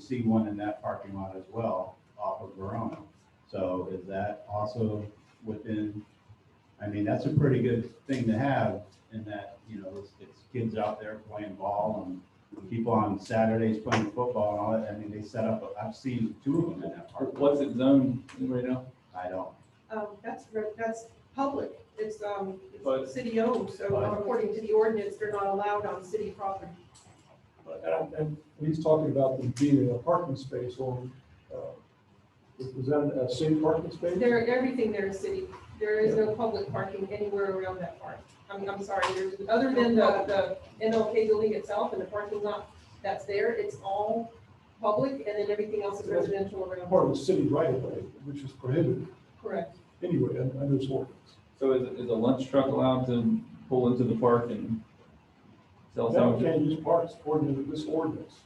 see one in that parking lot as well off of Verona. So is that also within, I mean, that's a pretty good thing to have in that, you know, it's, it's kids out there playing ball and people on Saturdays playing football and all that. I mean, they set up, I've seen two of them in that park. What's it zoned right now? I don't, Um, that's, re- that's public, it's, um, But- it's city owned, so But- according to the ordinance, they're not allowed on city property. And, Uh, and he's talking about the being a parking space on, uh, is that a city parking space? There, everything there is city, there is no public parking anywhere around that park. I'm, I'm sorry, there's, other than the, the MLK building itself and the parking lot that's there, it's all public, and then everything else is residential around. Part of the city right of way, which is prohibited Correct, anyway un- under this ordinance. So is, is a lunch truck allowed to pull into the park and sell Now, you sandwiches? can't use parks according to this ordinance.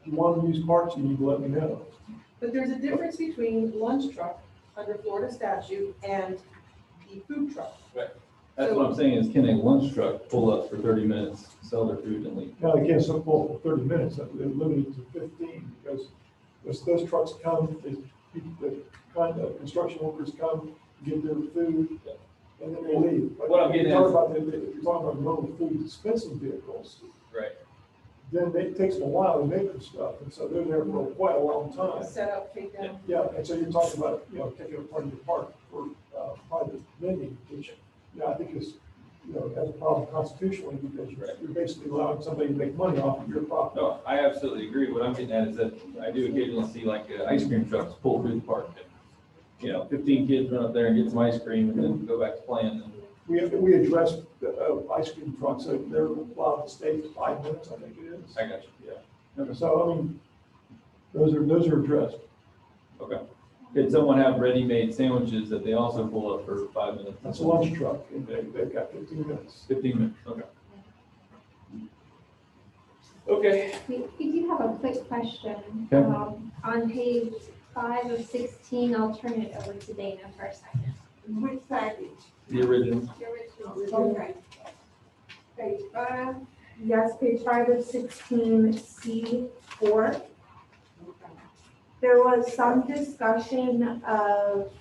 If you want to use parks, you need to let me know. but there's a difference between lunch truck under Florida statute and the food truck. That's what I'm saying is can a lunch truck pull up for thirty minutes, sell their food and leave? Now, again, some for thirty minutes, that- they're limited to fifteen, because as those trucks come, is, the kind of construction workers come, get their food, and then they leave. But What I'm getting if you're at- talking about the- If you're talking about mobile food dispensing vehicles, Right. then it takes them a while to make their stuff, and so they're there for quite a long time. Set up, take down. Yeah, and so you're talking about, you know, taking a part of your park for, uh, private vending, which, you know, I think is, you know, has a problem constitutionally because you're, Right. you're basically allowing somebody to make money off of your property. No, I absolutely agree. What I'm getting at is that I do occasionally see like uh, ice cream trucks pull through the park. and, You know, fifteen kids run up there and get some ice cream and then go back to playing and We, we addressed the, uh, ice cream trucks, so they're allowed to stay for five minutes, I think it is. I got you, yeah. And So, I mean, those are, those are addressed. Okay. Could someone have ready-made sandwiches that they also pull up for five minutes? That's a lunch truck, and they, they've got fifteen minutes. Fifteen minutes, okay. Okay. We, we do have a quick question. Okay. Um, On page five of sixteen, I'll turn it over to Dana for a second. Which package? The original. Okay. Page five, yes, page five of sixteen, C four. There was some discussion of,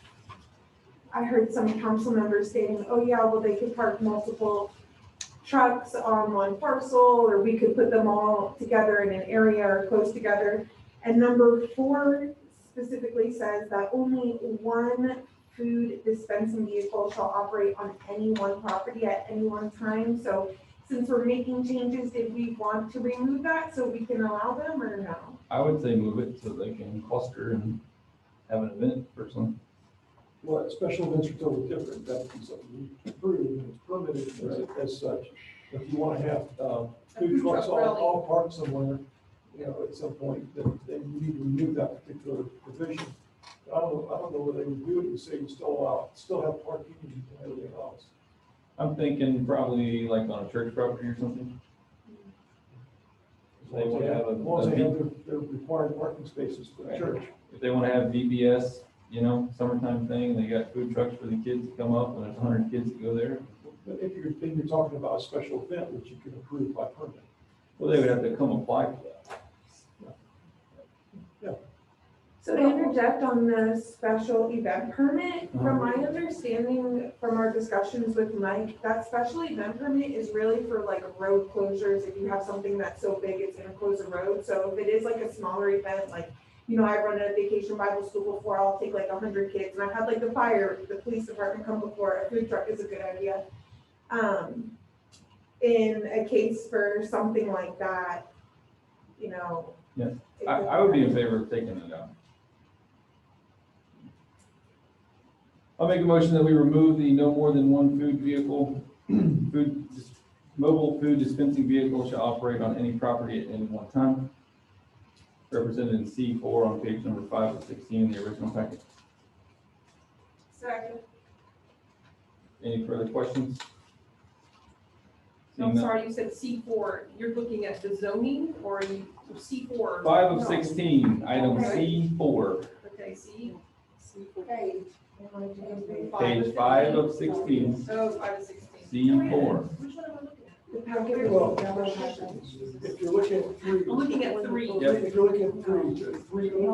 I heard some council members saying, oh yeah, well, they could park multiple trucks on one parcel, or we could put them all together in an area or close together. And number four specifically says that only one food dispensing vehicle shall operate on any one property at any one time. So since we're making changes, did we want to remove that so we can allow them or no? I would say move it so they can cluster and have an event or something. Well, special events are totally different, that's something we approve, and it's permitted as, as such. If you wanna have, um, food food truck trucks all, rally. all parked somewhere, you know, at some point, then, then you need to remove that particular provision. I don't, I don't know whether they would do it and say you still allow, still have parking and everything else. I'm thinking probably like on a church property or something. As long as they have, as long as they have their, their required parking spaces for the Right. church. If they want to have VBS, you know, summertime thing, they got food trucks for the kids to come up and there's a hundred kids that go there. But if you're, then you're talking about a special event, which you can approve by permit. Well, they would have to come apply for that. So to interject on the special event permit, from my Uh-huh. understanding, from our discussions with Mike, that special event permit is really for like road closures, if you have something that's so big, it's gonna close a road, so if it is like a smaller event, like, you know, I've run a vacation Bible school before, I'll take like a hundred kids, and I've had like the fire, the police department come before, a food truck is a good idea. Um, in a case for something like that, you know. Yeah. it I, could- I would be in favor of taking it out. I'll make a motion that we remove the no more than one food vehicle, food, dis- mobile food dispensing vehicle shall operate on any property at any one time. Represented in C four on page number five of sixteen in the original packet. Second. Any further questions? Seeing I'm none. sorry, you said C four, you're looking at the zoning or you, C four? Five of sixteen, item C four, Okay, C, C four. Page. Five of page five of sixteen, Oh, five of sixteen. C four. Which one am I looking at? The packet Well, was double package. If you're looking at three. I'm looking at three. If you're looking at three, three